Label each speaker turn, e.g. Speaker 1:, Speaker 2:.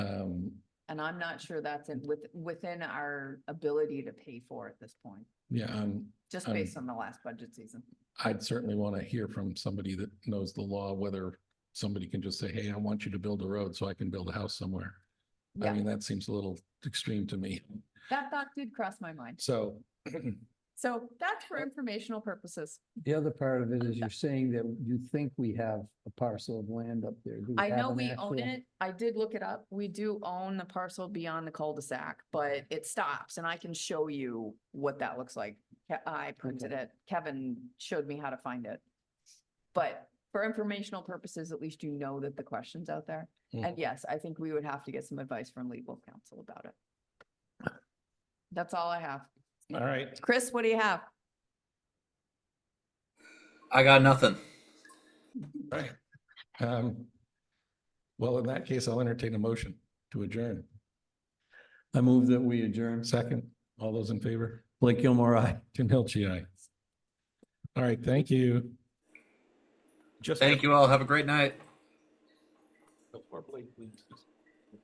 Speaker 1: Um,
Speaker 2: I'm not sure that's in, with, within our ability to pay for at this point,
Speaker 1: Yeah, um,
Speaker 2: just
Speaker 1: Um,
Speaker 2: based on the last budget season.
Speaker 1: I'd certainly want to hear from somebody that knows the law, whether somebody can just say, hey, I want you to build a road so I can build a house somewhere. I
Speaker 2: Yeah,
Speaker 1: mean, that seems a little extreme to me.
Speaker 2: that thought did cross my mind.
Speaker 1: So
Speaker 2: So that's
Speaker 1: Uh,
Speaker 2: for informational purposes.
Speaker 3: The other part of it is you're saying that you think we have a parcel of land up there. Do
Speaker 2: I
Speaker 3: have
Speaker 2: know
Speaker 3: an
Speaker 2: we
Speaker 3: actual-
Speaker 2: own it. I did look it up. We do own the parcel beyond the cul-de-sac, but it stops and I can show you what that looks like. Ke- I printed it. Kevin showed me how to find it. But for informational purposes, at least you know that the question's out there.
Speaker 3: Hmm.
Speaker 2: And yes, I think we would have to get some advice from legal counsel about it. That's all I have.
Speaker 1: All right.
Speaker 2: Chris, what do you have?
Speaker 4: I got nothing.
Speaker 1: Right. Um, Well, in that case, I'll entertain a motion to adjourn.
Speaker 5: I move that we adjourn.
Speaker 1: Second, all those in favor?
Speaker 5: Blake Gilmore, aye.
Speaker 1: Tim Hilchi, aye. All right, thank you.
Speaker 4: Thank you all. Have a great night.
Speaker 1: Before Blake leaves, just